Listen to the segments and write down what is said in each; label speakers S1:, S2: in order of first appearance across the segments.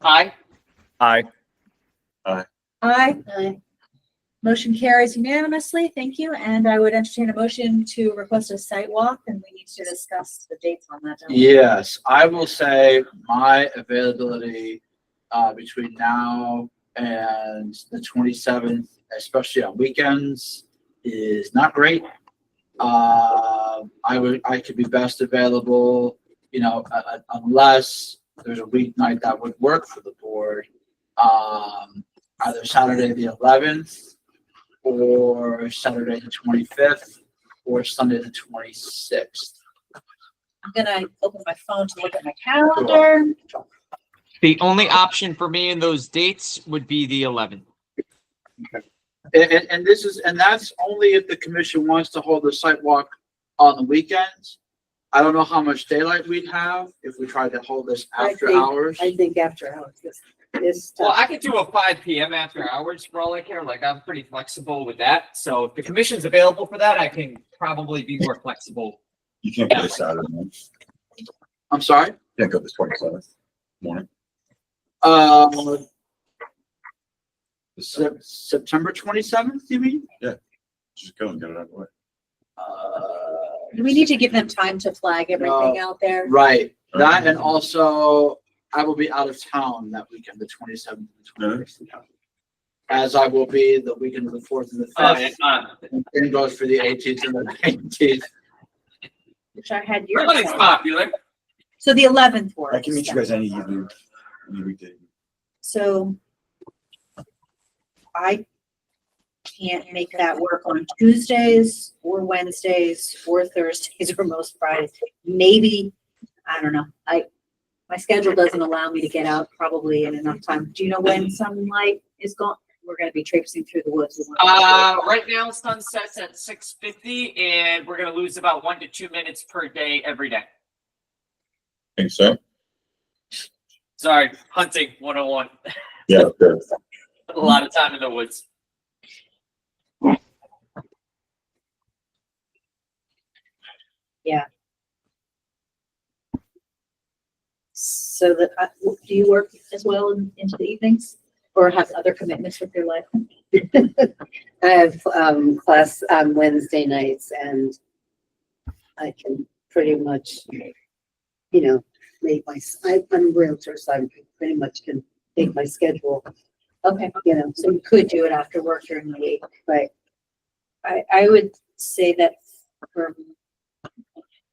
S1: Aye.
S2: Aye.
S3: Aye.
S4: Aye.
S3: Motion carries unanimously. Thank you. And I would entertain a motion to request a site walk and we need to discuss the dates on that. don't we?
S1: Yes, I will say my availability uh, between now and the twenty-seventh, especially on weekends, is not great. Uh, I would, I could be best available, you know, uh, uh, unless there's a weeknight that would work for the board. Um, either Saturday the eleventh, or Saturday the twenty-fifth, or Sunday the twenty-sixth.
S3: I'm gonna open my phone to look at my calendar.
S5: The only option for me in those dates would be the 11th.
S1: And, and, and this is, and that's only if the commission wants to hold a site walk on the weekends. I don't know how much daylight we'd have if we tried to hold this
S4: I
S1: after
S4: think-
S1: hours.
S4: I think after hours, this, this.
S5: Well, I could do a 5 PM after hours for all I care. Like I'm pretty flexible with that. So if the commission's available for that, I can probably be more flexible.
S2: You can't go this Saturday, man.
S1: I'm sorry,
S2: Can't go this twenty-seventh morning.
S1: uh,
S2: This Saturday.
S1: Sep- September twenty-seventh, you mean?
S2: Just go and get it out of the way.
S1: Uh,
S3: We need to give them time to flag everything out there.
S1: Right, that and also I will be out of town that weekend, the twenty-seventh. As I will be the weekend of the fourth and
S4: Oh.
S1: the fifth,
S5: Uh,
S1: and goes for the eighteenth and the nineteenth.
S3: Which I had your.
S5: Everybody's popular.
S3: So the eleventh works.
S2: I can meet you guys any evening, any weekday.
S3: So I can't make that work on Tuesdays or Wednesdays or Thursdays or most Fridays. Maybe, I don't know, I, my schedule doesn't allow me to get out probably in enough time. Do you know when sunlight is gone? We're gonna be traipsing through the woods.
S5: Uh, right now sun sets at 6:50 and we're gonna lose about one to two minutes per day every day.
S2: Think so?
S5: Sorry, hunting 101.
S2: Yeah, good.
S5: A lot of time in the woods.
S3: So that, I- do you work as well in- into the evenings or have other commitments with your life?
S4: I have, um, class on Wednesday nights and I can pretty much, you know, make my, I- I'm a Realtor, so I pretty much can make my schedule,
S3: Okay.
S4: you know,
S3: So you could do it after work during the week.
S4: right.
S3: I, I would say that for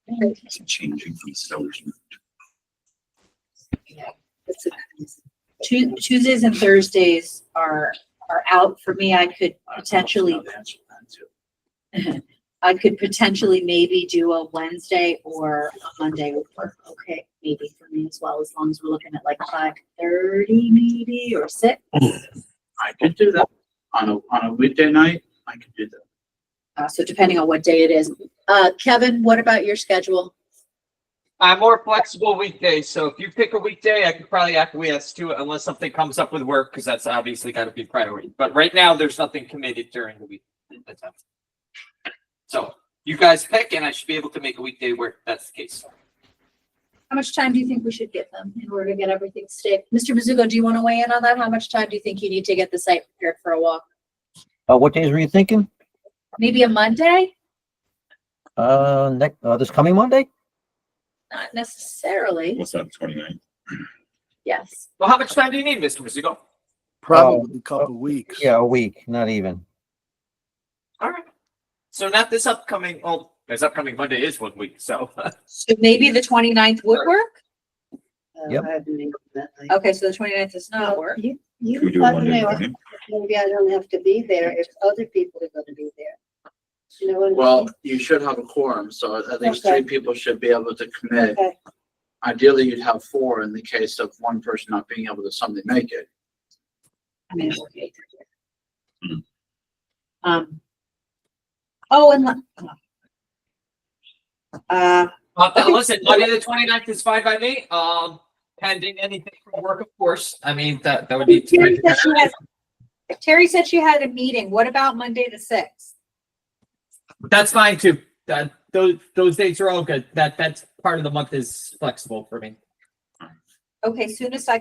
S2: It's changing from sellers.
S4: It's a-
S3: Tu- Tuesdays and Thursdays are, are out for me. I could potentially, I could potentially maybe do a Wednesday or a Monday would work. Okay, maybe for me as well, as long as we're looking at like five thirty maybe or six.
S1: I could do that on a, on a weekday night. I could do that.
S3: Uh, so depending on what day it is. Uh, Kevin, what about your schedule?
S5: I'm more flexible weekdays, so if you pick a weekday, I could probably acquiesce to it unless something comes up with work, because that's obviously gotta be priority. But right now, there's nothing committed during the week. at the time. So you guys pick and I should be able to make a weekday work. if That's the case.
S3: How much time do you think we should give them in order to get everything staked? Mr. Mizuko, do you want to weigh in on that? How much time do you think you need to get the site prepared for a walk?
S6: Uh, what days were you thinking?
S3: Maybe a Monday?
S6: Uh, next, uh, this coming Monday?
S3: Not necessarily.
S2: What's that, twenty-nine?
S3: Yes.
S5: Well, how much time do you need, Mr. Mizuko?
S7: Probably a couple weeks.
S6: Yeah, a week, not even.
S5: All right. So not this upcoming, well, this upcoming Monday is one week, so.
S3: So maybe the 29th would work?
S4: uh,
S6: Yep.
S4: I haven't made that night.
S3: Okay, so the 29th does not work.
S4: Oh, You,
S2: Should we
S4: you
S2: do it
S4: let me
S2: Monday
S4: know.
S2: morning?
S4: Maybe I don't have to be there if other people are gonna be there. You know what? I mean?
S1: Well, you should have a quorum, so at least three
S4: Okay.
S1: people should be able to commit.
S4: Okay.
S1: Ideally, you'd have four in the case of one person not being able to suddenly make it.
S3: I mean, it would be-
S2: Hmm.
S3: Um. Oh, and. la- Uh,
S5: Uh, but listen, Monday the 29th is fine by me, um, pending anything from work, of course. I mean, that, that would be.
S3: Terry said she had- Terry said she had a meeting. What about Monday the sixth?
S5: That's fine too. That, those, those dates are all good. That, that's part of the month is flexible for me.
S3: Okay, soonest I